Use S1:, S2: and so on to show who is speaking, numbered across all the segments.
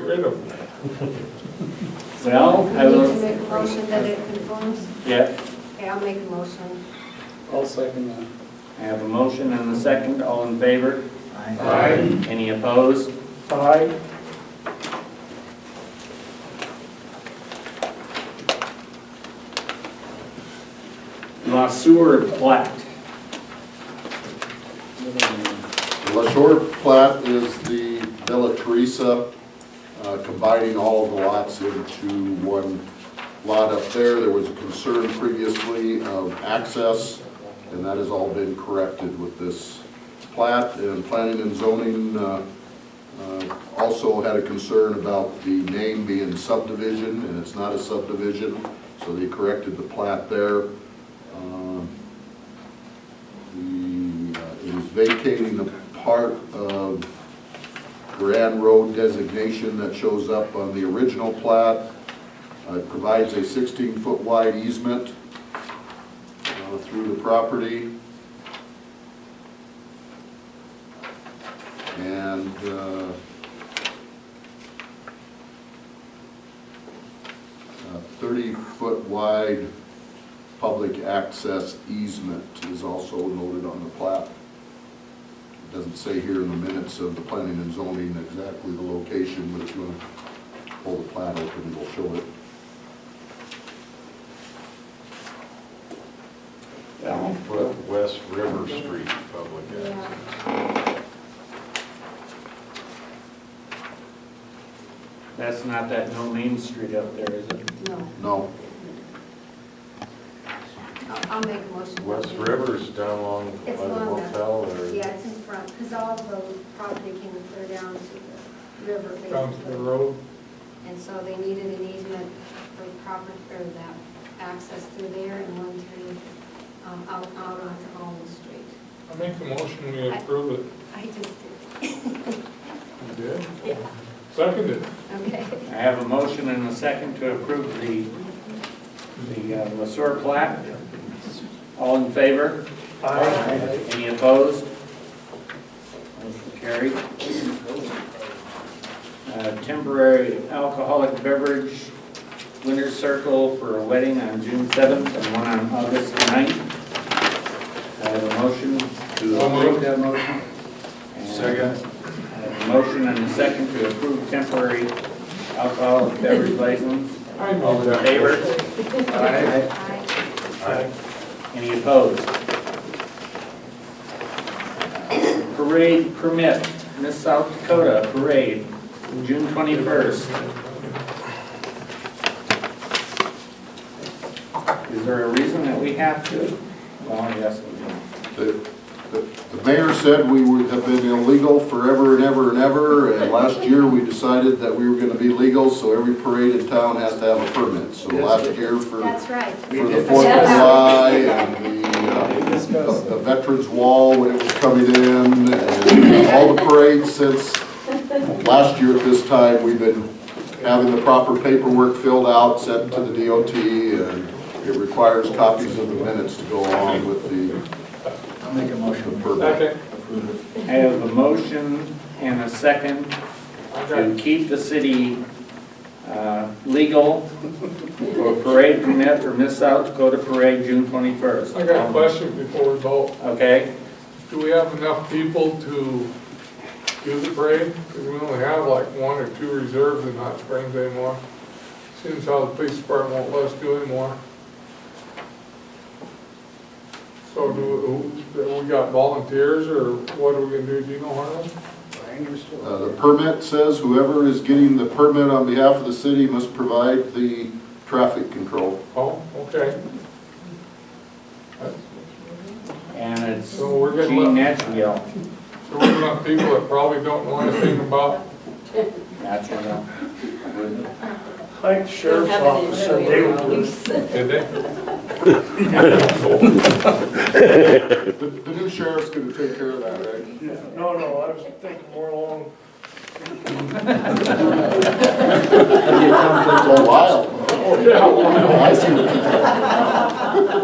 S1: rid of them.
S2: Well, I
S3: We
S2: will-
S3: need to make a motion that it conforms.
S2: Yeah,
S3: Okay, I'll make a motion.
S4: I'll second that.
S2: I have a motion and a second, all in favor?
S4: Aye.
S2: Any opposed?
S4: Aye.
S2: La Sewer plat.
S5: La Shore plat is the Villa Teresa, uh, combining all of the lots into one lot up there. There was a concern previously of access, and that has all been corrected with this plat. And planning and zoning uh, uh, also had a concern about the name being subdivision, and it's not a subdivision, so they corrected the plat there. Um, the, uh, it is vacating the part of Grand Road designation that shows up on the original plat. Uh, It provides a 16-foot wide easement uh, through the property. And uh, a 30-foot wide public access easement is also noted on the plat. It Doesn't say here in the minutes of the planning and zoning exactly the location, but if you want to pull the plat open, we'll show it.
S1: Down foot West River Street Public
S3: Yeah.
S1: Access.
S2: That's not that no name street up there, is it?
S3: No,
S5: No,
S3: I'll, I'll make a motion.
S1: West River's down along by
S3: It's
S1: the
S3: long enough.
S1: motel there.
S3: Yeah, it's in front, because all of the property came clear down to the river.
S4: Down to the road.
S3: And so they needed an easement for proper, or that access through there and one through, um, out, out onto Almond Street.
S4: I make a motion, we approve it.
S3: I just did,
S4: You did? Seconded.
S3: okay.
S2: I have a motion and a second to approve the, the uh, La Sewer plat. All in favor?
S4: Aye.
S2: Any opposed? Motion carried. Uh, Temporary alcoholic beverage, winter circle for a wedding on June 7th and one on August 9th. I have a motion to approve.
S4: that motion.
S2: And I have a motion and a second to approve temporary alcoholic beverage license.
S4: I
S2: All
S4: move
S2: in
S4: that.
S2: favor?
S4: Aye.
S3: Aye.
S1: Aye.
S2: Any opposed? Parade permit, Miss South Dakota Parade, June 21st. Is there a reason that we have to? Well, yes, we do.
S5: the, the the mayor said we would have been illegal forever and ever and ever, and last year we decided that we were gonna be legal, so every parade in town has to have a permit. So last year for
S3: That's right.
S5: for the Fourth of July and the, uh, the Veterans Wall when it was coming in, and all the parades since last year at this time, we've been having the proper paperwork filled out, sent to the DOT, and it requires copies of the minutes to go along with the. I'll make a motion. Permit.
S4: Second.
S2: I have a motion and a second to keep the city uh, legal for a parade permit for Miss South Dakota Parade, June 21st.
S4: I got a question before we vote.
S2: Okay,
S4: Do we have enough people to do the parade? Because we only have like one or two reserves in Hot Springs anymore. Seems how the police department won't let us do anymore. So do, who- we got volunteers or what are we gonna do, do you know, Harlan?
S5: Uh, the permit says whoever is getting the permit on behalf of the city must provide the traffic control.
S4: Oh, okay.
S2: and it's
S4: So we're good
S2: Gene
S4: luck.
S2: Natchell.
S4: So we're gonna have people that probably don't know anything about,
S2: Natchell.
S6: Like the sheriff's office, and they were,
S4: did they?
S5: The, the new sheriff's gonna take care of that, right?
S6: no, no, I was thinking more along,
S5: It's a while. I see what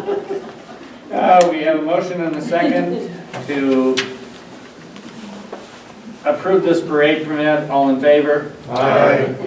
S5: you're doing.
S2: Uh, we have a motion and a second to approve this parade permit, all in favor?
S4: Aye.